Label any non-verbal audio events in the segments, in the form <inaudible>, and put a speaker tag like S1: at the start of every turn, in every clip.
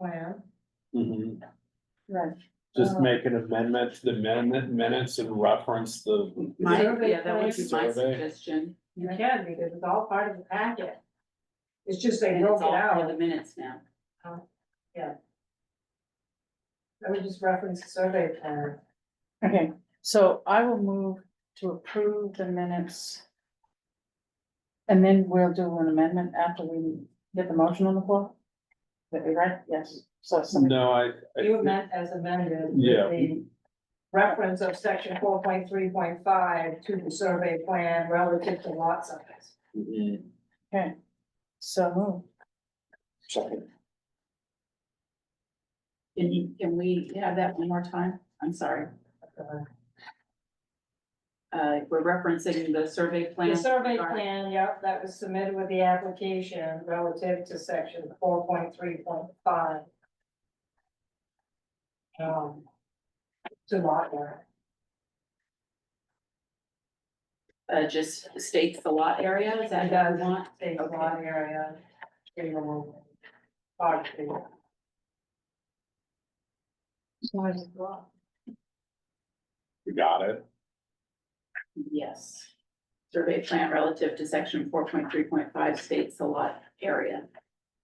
S1: plan.
S2: Mhm.
S1: Right.
S2: Just
S3: Um,
S1: Uh,
S2: make an amendment to the amendment minutes and reference the,
S4: My,
S1: Survey
S4: yeah, that would be
S2: plan.
S4: my suggestion.
S1: You can, because it's all part of the packet. It's just they
S4: And
S1: broke
S4: it's
S1: it
S4: all for
S1: out,
S4: the minutes now.
S1: I would just reference the survey plan.
S3: Okay, so I will move to approve the minutes. And then we'll do an amendment after we get the motion on the floor. That we read, yes, so somebody,
S2: no, I. I
S1: You
S2: thi-
S1: meant as amended. with
S2: Yeah.
S1: The reference of section four point three point five to the survey plan relative to lot size.
S2: Mhm.
S3: so move.
S2: Second.
S4: Can you, can we have that one more time? I'm sorry. Uh, we're referencing the survey
S1: The
S4: plan.
S1: survey
S4: Alright.
S1: plan, yep, that was submitted with the application relative to section four point three point five. Um. To lot area.
S4: Uh, just states the lot area, is that what
S1: does
S4: you want?
S1: Take a lot area. tree removal, bark tree.
S2: You got it.
S4: Yes. Survey plan relative to section four point three point five states the lot area.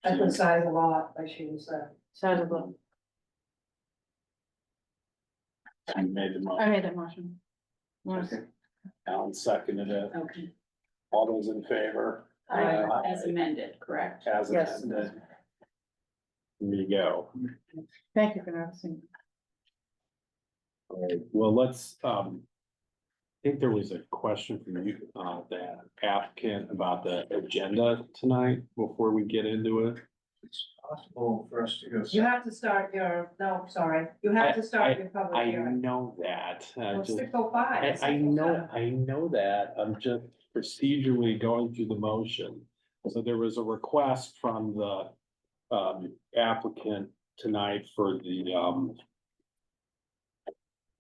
S1: That's the size of lot, I should say.
S3: Side of the,
S2: I made the
S3: I
S2: motion.
S3: made that motion. Yes.
S2: Alan seconded it.
S4: Okay,
S2: All those in favor?
S1: Aye.
S4: as amended, correct?
S2: As
S3: Yes.
S2: amended. There you go.
S3: Thank you for noticing.
S2: All right, well, let's, um. I think there was a question from you, uh, that applicant about the agenda tonight before we get into it.
S5: It's possible for us to go.
S1: You have to start your, no, sorry, you have to start your public
S2: I
S1: hearing.
S2: know that, I
S1: Oh, Well,
S2: just,
S1: Six oh five.
S2: I,
S1: it's
S2: I
S1: 6:05.
S2: know, I know that, I'm just procedurally going through the motion. So there was a request from the, um, applicant tonight for the, um.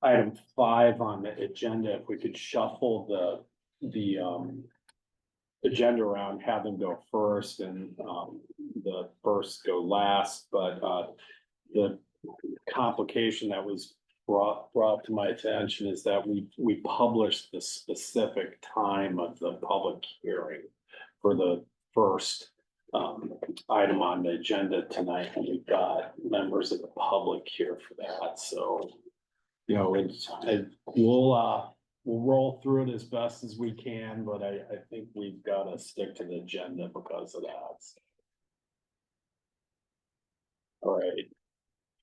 S2: Item five on the agenda, if we could shuffle the, the, um. Agenda around, have them go first and, um, the first go last, but, uh, the complication that was brought, brought to my attention is that we, we published the specific time of the public hearing for the first um, item on the agenda tonight, and we've got members of the public here for that, so you know, it's, I, we'll, uh, we'll roll through it as best as we can, but I, I think we've gotta stick to the agenda because of that. All right,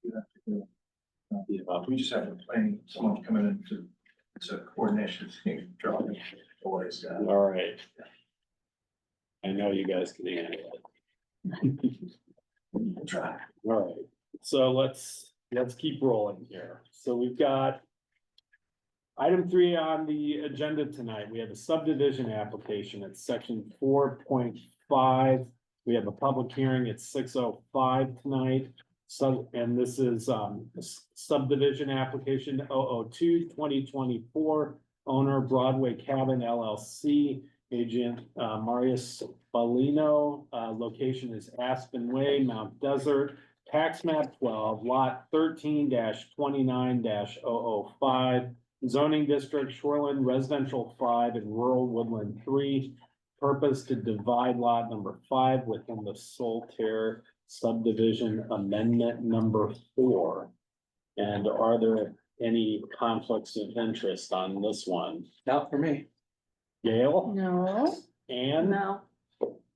S2: yeah,
S5: We just have a planning, someone come in and do, it's a coordination thing, draw it, always, uh,
S2: All right. I know you guys can handle it. <laughs>
S5: try.
S2: All right, so let's, let's keep rolling here. So we've got. Item three on the agenda tonight, we have a subdivision application at section four point five. We have a public hearing at six oh five tonight. So, and this is um s- subdivision application 002-2024, Owner Broadway Cabin LLC, agent uh Marius Bellino. Uh, location is Aspen Way, Mount Desert. Tax map twelve, lot thirteen twenty-nine 5 zoning district shoreline residential five and rural woodland three. Purpose to divide lot number five within the Solterre subdivision amendment number four. And are there any conflicts of interest on this one?
S6: Not for me.
S2: Gail,
S3: No,
S2: Ann,
S4: No,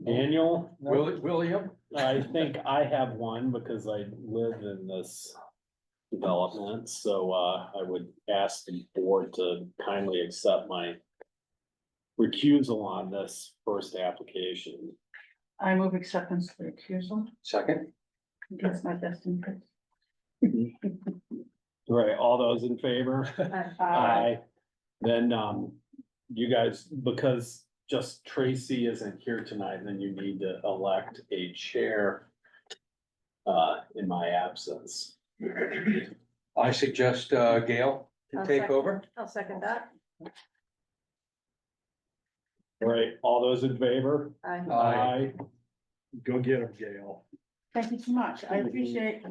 S2: Daniel?
S6: Will, William?
S2: I think I have one because I live in this development, so uh, I would ask the board to kindly accept my recusal on this first application.
S3: I move acceptance for recusal.
S6: Second.
S3: That's my best interest.
S2: Right, all those in favor?
S3: Uh,
S2: Aye. Then, um, you guys, because just Tracy isn't here tonight, then you need to elect a chair uh, in my absence.
S6: I suggest uh, Gail to
S3: I'll
S6: take
S3: second.
S6: over.
S3: I'll second that.
S2: Right, all those in favor?
S3: Aye.
S2: Go get him, Gail.
S3: Thank you so much. I appreciate